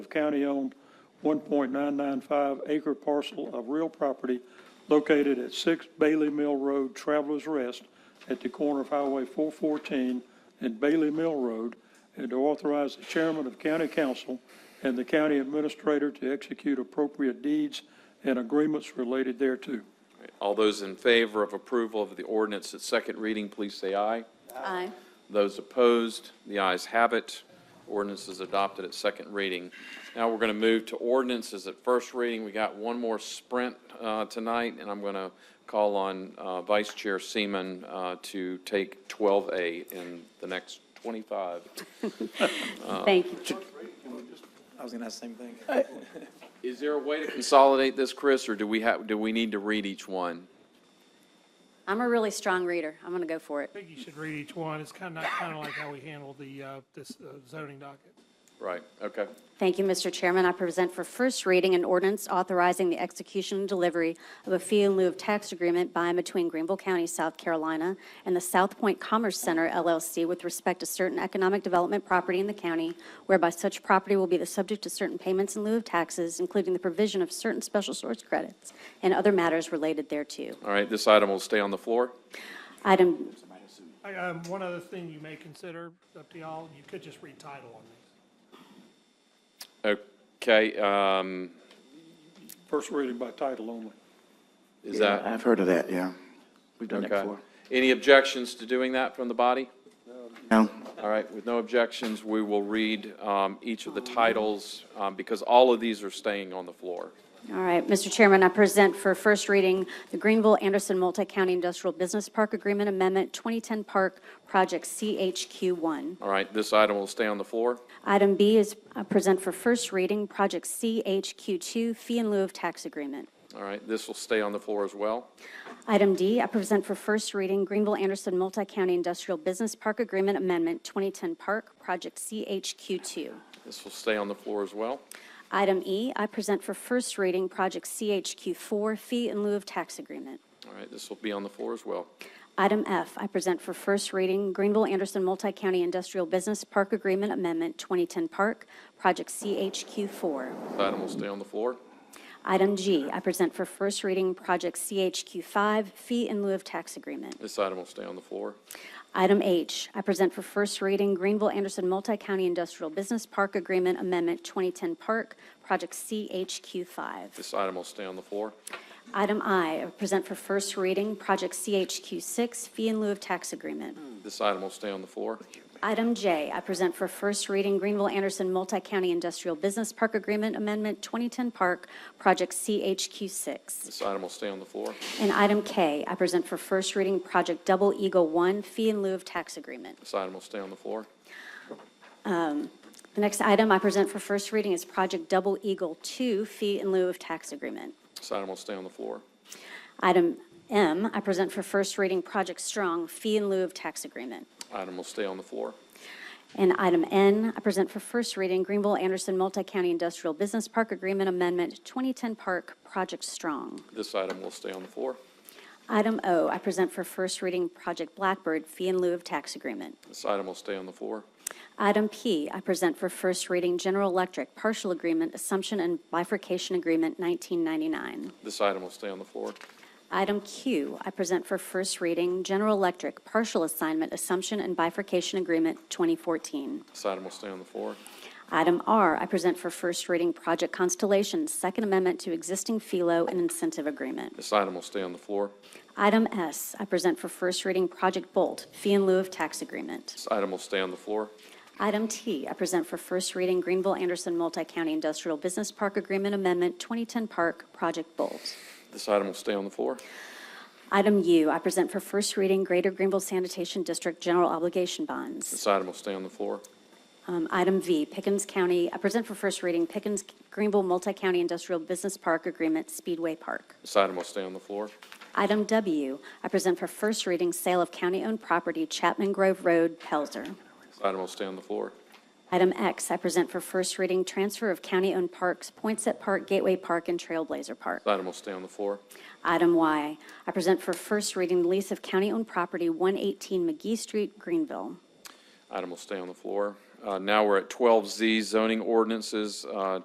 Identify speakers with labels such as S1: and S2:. S1: of county-owned 1.995 acre parcel of real property located at 6 Bailey Mill Road, Travelers Rest, at the corner of Highway 414 and Bailey Mill Road, and to authorize the chairman of county council and the county administrator to execute appropriate deeds and agreements related thereto.
S2: All those in favor of approval of the ordinance at second reading, please say aye.
S3: Aye.
S2: Those opposed, the ayes have it. Ordinance is adopted at second reading. Now we're going to move to ordinances at first reading. We got one more sprint uh, tonight, and I'm going to call on uh, Vice Chair Seaman uh, to take 12A in the next 25.
S3: Thank you.
S4: I was gonna ask the same thing.
S2: Is there a way to consolidate this, Chris, or do we have, do we need to read each one?
S3: I'm a really strong reader. I'm going to go for it.
S5: I think you should read each one. It's kind of, not kind of like how we handled the, uh, this uh, zoning docket.
S2: Right, okay.
S3: Thank you, Mr. Chairman. I present for first reading an ordinance authorizing the execution and delivery of a fee in lieu of tax agreement by and between Greenville County, South Carolina, and the South Point Commerce Center LLC with respect to certain economic development property in the county, whereby such property will be the subject to certain payments in lieu of taxes, including the provision of certain special source credits and other matters related thereto.
S2: All right, this item will stay on the floor.
S3: Item
S5: I, um, one other thing you may consider, it's up to y'all, you could just read title on these.
S2: Okay, um,
S1: First reading by title only.
S2: is that,
S4: I've heard of that, yeah. We've done that
S2: okay?
S4: before.
S2: Any objections to doing that from the body?
S4: No,
S2: All right, with no objections, we will read um, each of the titles, um, because all of these are staying on the floor.
S3: All right, Mr. Chairman, I present for first reading the Greenville-Anderson Multi-County Industrial Business Park Agreement Amendment, 2010 Park Project CHQ1.
S2: All right, this item will stay on the floor.
S3: Item B is uh, present for first reading, Project CHQ2 Fee in lieu of Tax Agreement.
S2: All right, this will stay on the floor as well.
S3: Item D, I present for first reading Greenville-Anderson Multi-County Industrial Business Park Agreement Amendment, 2010 Park Project CHQ2.
S2: This will stay on the floor as well.
S3: Item E, I present for first reading Project CHQ4 Fee in lieu of Tax Agreement.
S2: All right, this will be on the floor as well.
S3: Item F, I present for first reading Greenville-Anderson Multi-County Industrial Business Park Agreement Amendment 2010 Park, Project CHQ4.
S2: This item will stay on the floor.
S3: Item G, I present for first reading Project CHQ5 Fee in lieu of Tax Agreement.
S2: This item will stay on the floor.
S3: Item H, I present for first reading Greenville-Anderson Multi-County Industrial Business Park Agreement Amendment 2010 Park, Project CHQ5.
S2: This item will stay on the floor.
S3: Item I, I present for first reading Project CHQ6 Fee in lieu of Tax Agreement.
S2: This item will stay on the floor.
S3: Item J, I present for first reading Greenville-Anderson Multi-County Industrial Business Park Agreement Amendment 2010 Park, Project CHQ6.
S2: This item will stay on the floor.
S3: And item K, I present for first reading Project Double Eagle 1 Fee in lieu of Tax Agreement.
S2: This item will stay on the floor.
S3: The next item I present for first reading is Project Double Eagle 2 Fee in lieu of Tax Agreement.
S2: This item will stay on the floor.
S3: Item M, I present for first reading Project Strong Fee in lieu of Tax Agreement.
S2: Item will stay on the floor.
S3: And item N, I present for first reading Greenville-Anderson Multi-County Industrial Business Park Agreement Amendment 2010 Park Project Strong.
S2: This item will stay on the floor.
S3: Item O, I present for first reading Project Blackbird Fee in lieu of Tax Agreement.
S2: This item will stay on the floor.
S3: Item P, I present for first reading General Electric Partial Agreement Assumption and Bifurcation Agreement 1999.
S2: This item will stay on the floor.
S3: Item Q, I present for first reading General Electric Partial Assignment Assumption and Bifurcation Agreement 2014.
S2: This item will stay on the floor.
S3: Item R, I present for first reading Project Constellation, Second Amendment to Existing FILO and Incentive Agreement.
S2: This item will stay on the floor.
S3: Item S, I present for first reading Project Bolt, Fee in lieu of Tax Agreement.
S2: This item will stay on the floor.
S3: Item T, I present for first reading Greenville-Anderson Multi-County Industrial Business Park Agreement Amendment, 2010 Park, Project Bolt.
S2: This item will stay on the floor.
S3: Item U, I present for first reading Greater Greenville Sanitation District General Obligation Bonds.
S2: This item will stay on the floor.
S3: Um, Item V, Pickens County, I present for first reading Pickens Greenville Multi-County Industrial Business Park Agreement, Speedway Park.
S2: This item will stay on the floor.
S3: Item W, I present for first reading sale of county-owned property Chapman Grove Road, Pelzer.
S2: This item will stay on the floor.
S3: Item X, I present for first reading transfer of county-owned parks Poinsett Park, Gateway Park, and Trailblazer Park.
S2: This item will stay on the floor.
S3: Item Y, I present for first reading lease of county-owned property 118 McGee Street, Greenville.
S2: Item will stay on the floor. Uh, Now we're at 12Z zoning ordinances. Uh,